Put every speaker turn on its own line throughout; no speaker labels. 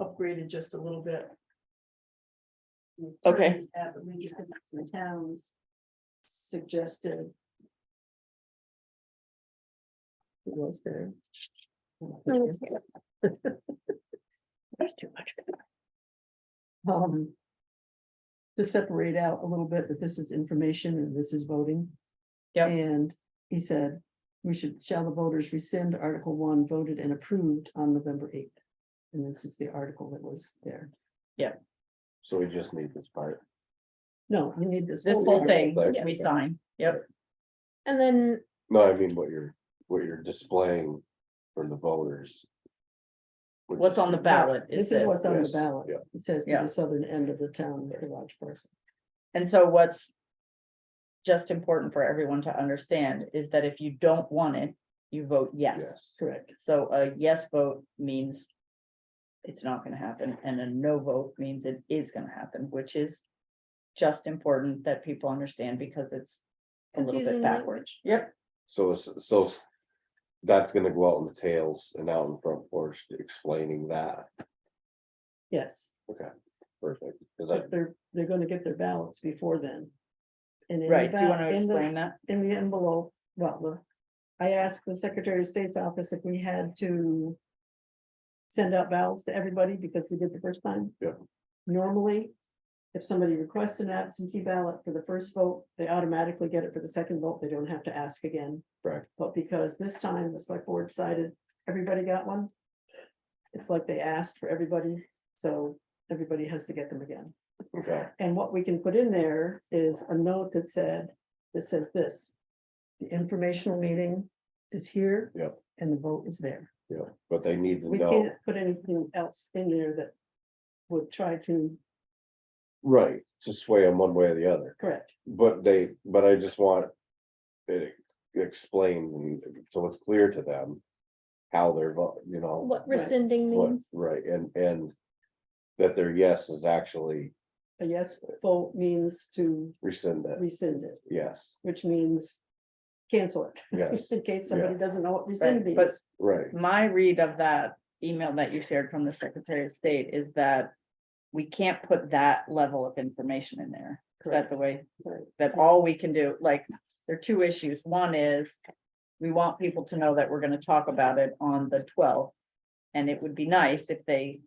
upgraded just a little bit.
Okay.
Uh, but we just- The towns suggested. It was there.
That's too much.
Um. To separate out a little bit that this is information and this is voting.
Yep.
And he said, we should, shall the voters rescind Article one voted and approved on November eighth? And this is the article that was there.
So we just need this part.
No, we need this.
This whole thing,
Like-
we sign, yep,
And then,
No, I mean, what you're, what you're displaying for the voters. Which
what's
is-
on the ballot is
This is
this,
what's on the
Yes,
ballot.
yeah.
It says to
Yeah.
the southern end of the town, the large person.
and so what's. Just important for everyone to understand is that if you don't want it, you vote yes.
Yes,
Correct.
So a yes vote means. It's not gonna happen, and a no vote means it is gonna happen, which is. Just important that people understand because it's a little bit
Confusing
backwards, yep,
so, s- so. s- That's gonna go out in the tails and out in front porch explaining that,
Yes,
perfect, cause I,
but they're, they're gonna get their ballots before then. And in the
right, do you
ba-
wanna
in the-
explain that?
in the envelope, well, the- I asked the Secretary of State's office if we had to. Send out ballots to everybody because we did the first time.
Yeah.
Normally, if somebody requests an absentee ballot for the first vote, they automatically get it for the second vote. They don't have to ask again.
Correct.
But because this time the select board decided everybody got one. It's like they asked for everybody, so everybody has to get them again.
okay,
And what we can put in there is a note that said, that says this. The informational meeting is here.
Yep.
And the vote is there.
yeah, but they need to
We
know,
can't put anything else in there that would try to
right, to sway them one way or the other.
correct.
But they, but I just want it explained, and so it's clear to them how they're, vo- you know.
what
Right.
rescinding
what-
means,
Right, and, and that their yes is actually
A yes vote means to
rescind that,
rescind it,
yes,
which means cancel it.
yes,
In case somebody doesn't know what rescind
Right, but-
means.
right,
my read of that email that you shared from the Secretary of State is that. We can't put that level of information in there. Is that the way?
Right.
That all we can do, like, there are two issues. One is. We want people to know that we're gonna talk about it on the twelfth. And it would be nice if they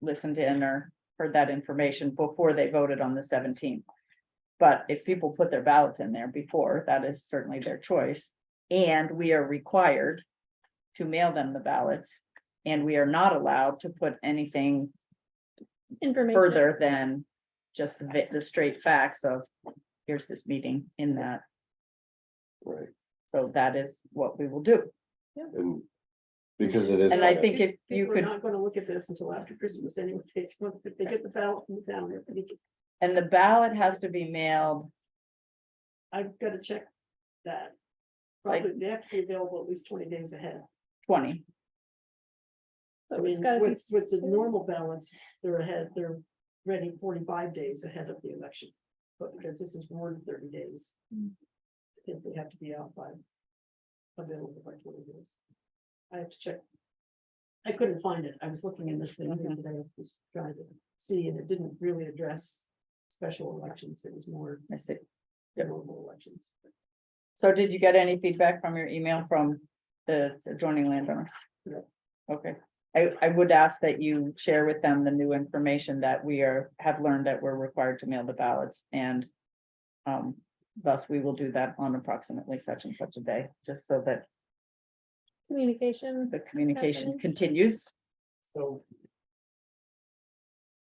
listened in or heard that information before they voted on the seventeenth. But if people put their ballots in there before, that is certainly their choice. And we are required to mail them the ballots. And we are not allowed to put anything
information.
further than just the, vi- the straight facts of, here's this meeting in that.
right,
So that is what we will do.
and because it is.
And I think if you
People are
could,
not gonna look at this until after Christmas anyway. It's when they get the ballot from the town.
and the ballot has to be mailed,
I've gotta check that.
Like-
Probably they have to be available at least twenty days ahead.
twenty,
I
So it's
mean,
gotta be
with, with the
soon.
normal balance, they're ahead, they're ready forty-five days ahead of the election. But because this is more than thirty days.
Mm.
I think they have to be out by. Available by twenty days. I have to check. I couldn't find it. I was looking in this thing the other
Mhm.
day, I was trying to see, and it didn't really address special elections. It was more
I see. Yep.
normal elections.
So did you get any feedback from your email from the adjoining landowner?
No.
Okay, I, I would ask that you share with them the new information that we are, have learned that we're required to mail the ballots and. Um, thus we will do that on approximately such and such a day, just so that
Communication.
the communication
happening.
continues.
So.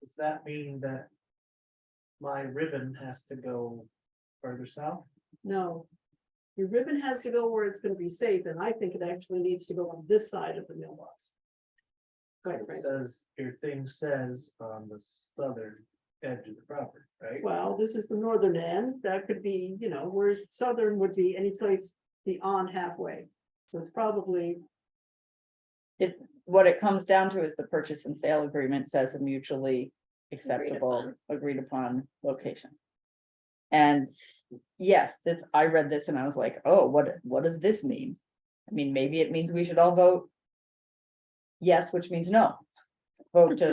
Does that mean that? My ribbon has to go further south?
No. Your ribbon has to go where it's gonna be safe, and I think it actually needs to go on this side of the mailbox. Right,
It
right.
Says, your thing says on the southern edge of the property, right?
Well, this is the northern end. That could be, you know, whereas southern would be any place beyond halfway. So it's probably,
What it comes down to is the purchase and sale agreement says a mutually acceptable, agreed upon location. And yes, this, I read this and I was like, oh, what, what does this mean? I mean, maybe it means we should all vote. Yes, which means no. Vote to